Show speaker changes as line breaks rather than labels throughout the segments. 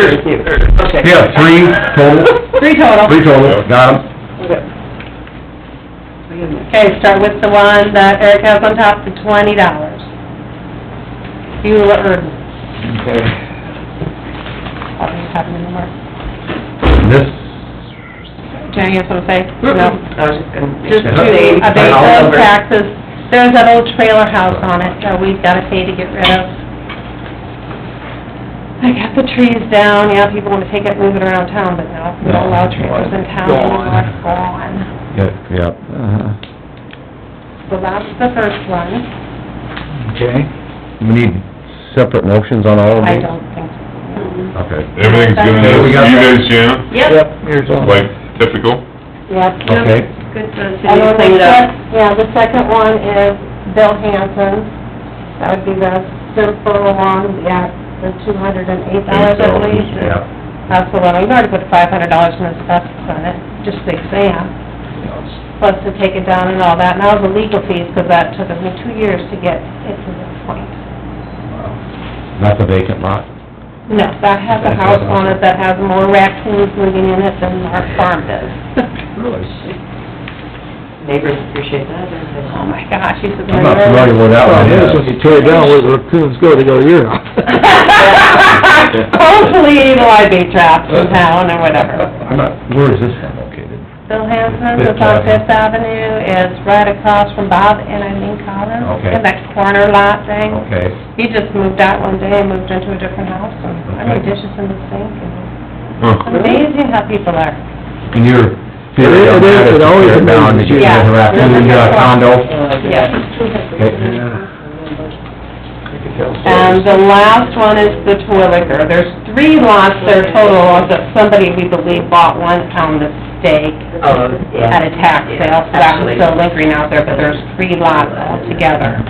you. Okay.
Yeah, three total?
Three total.
Three total, got 'em.
Okay, start with the one that Eric has on top, the twenty dollars. Beulah Urban,
Okay.
I'll just have it in the mark.
This,
Jenny, you have something to say?
No,
No.
I was just gonna make
Just
sure.
to
They-
abate those taxes. There's that old trailer house on it that we've gotta pay to get rid of. I got the trees down, yeah, people wanna take it, move it around town, but no, we don't allow trailers in town anymore, it's gone.
yeah, yeah.
Uh-huh.
So that's the first one.
Okay.
We need separate motions on all of
I
these?
don't think so.
Okay.
Everything's good in
Okay,
this,
we
you
got that.
guys, yeah,
Yep,
Here's all.
like typical,
Yep.
Okay,
good for the
And
city to
then
clean
the
it up.
sec- Yeah, the second one is Bill Hanson. That would be the simple one, yeah, the two hundred and eight dollars, I believe.
yeah.
That's the one, we've already put five hundred dollars in asbestos on it, just the exam, plus to take it down and all that, and all the legal fees, because that took me two years to get it to this point.
Not the vacant lot?
No, that has a house on it that has more raccoons living in it than our farm does.
Really?
Neighbors appreciate that, don't they?
Oh, my gosh, he says.
I'm not familiar with that one.
Problem is, when you tear it down, where the raccoons go, they go to your house.
Hopefully, the live bait traps in town or whatever.
I'm not, where is this one located?
Bill Hanson,
Fifth
it's on
Avenue.
Fifth Avenue, is right across from Bob and Eileen Collins.
Okay.
In that corner lot thing.
Okay,
He just moved out one day and moved into a different house, and I made
Okay.
dishes in the sink, and
huh,
amazing how people are.
and your
It
theory
is-
on
it
that
is-
is
it
to
always
tear it down, to
amazes
get rid of the
you.
raccoon,
Yeah.
you got a condo?
Yes.
Yeah.
Um,
And the last one is the Twilliger. There's three lots there total, that somebody, we believe, bought one pound of steak
Oh, yeah.
at a tax sale, so that was
Actually.
still lingering out there, but there's three lots altogether.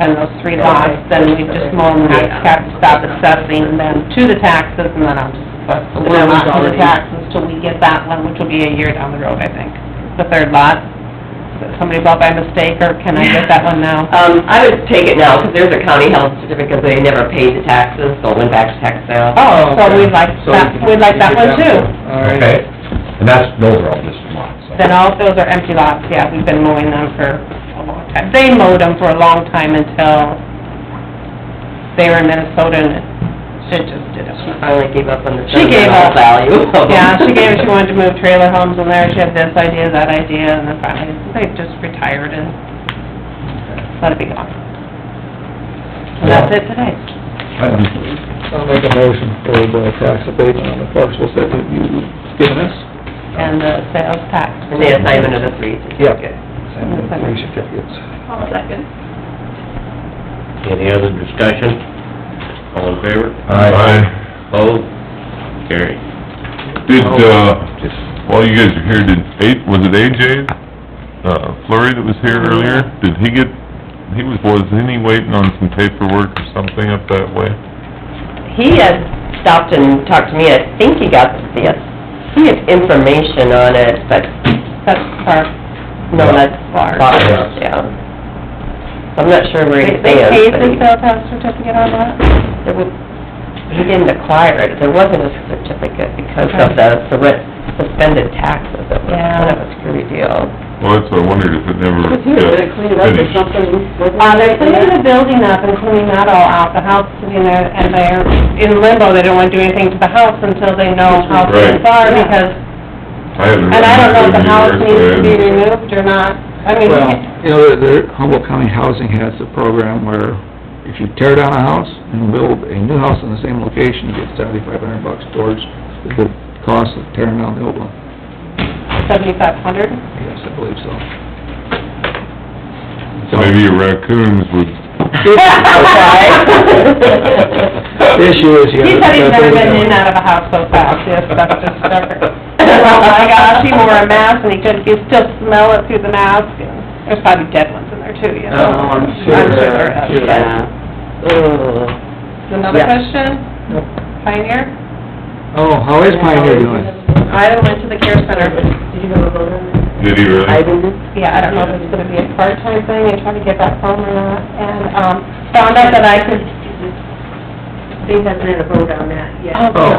And those three lots, then we just mow them, we have to stop assessing them to the taxes, and then I'll just assess the
Well, that was
lot to the
already-
taxes till we get that one, which will be a year down the road, I think. The third lot, that somebody bought by mistake, or can I get that one now?
Um, I would take it now, because there's a county health certificate, they never paid the taxes, so it went back to tax sale.
Oh, so we'd like that, we'd like that one too.
All right.
Okay, and that's, those are all just lots. so.
Then all, those are empty lots, yeah, we've been mowing them for a long time. They mowed them for a long time until they were in Minnesota and it, it just did
She
it.
finally gave up on the
She gave
sentimental
up.
value of them.
Yeah, she gave, she wanted to move trailer homes in there, she had this idea, that idea, and then finally, they just retired and let it be gone. And that's it today.
I'd be-
I'll make a motion for the tax abatement on the parcels that you've given us.
And the sales tax.
And the assignment of the three.
Yep. Same with the three certificates.
Any other discussion? All in favor?
Aye.
Aye.
Opposed? Carried.
Did,
Oh.
uh,
Just,
while you guys are here, did, A- was it AJ, uh, Flurry that was here earlier? Did he get, he was, wasn't he waiting on some paperwork or something up that way?
He had stopped and talked to me, I think he got, yes, he had information on it, but,
That's our
no,
Yeah.
that's
Large.
large, yeah. I'm not sure where he
They they
stands,
paid
but
the
he,
sales tax certificate on that?
there was, he didn't acquire it, there wasn't a certificate because of the sur- suspended taxes, it was kind of a screwy deal.
Well, that's what I wondered if it never got finished.
Uh, they're cleaning the building up and cleaning that all out, the house, you know, and they're in limbo, they don't wanna do anything to the house until they know how things are,
Right.
because,
I haven't.
and I don't know if the house
read it
needs to be
either, so I haven't-
removed or not, I mean,
Well, you know, the the Humboldt County Housing has a program where if you tear down a house and build a new house in the same location, you get seventy-five hundred bucks towards the cost of tearing down the old one.
seventy-five hundred?
Yes, I believe so.
So maybe your raccoons would,
uh,
The issue is, you
He
have...
said he's never been in and out of a house so fast, he has stuff just stuck. Oh my gosh, he wore a mask and he could, you still smell it through the mask, and there's probably dead ones in there too, you know?
Oh, I'm
I'm
sure.
sure there is,
Sure.
yeah.
Yeah. Ugh.
Another
Yeah.
question? Pioneer?
Oh, how is Pioneer doing?
I went to the care center.
did he really?
Yeah, I don't know if it's gonna be a part-time thing, and try to get back home or not, and, um, found out that I could... They haven't had a vote on that yet.
Oh.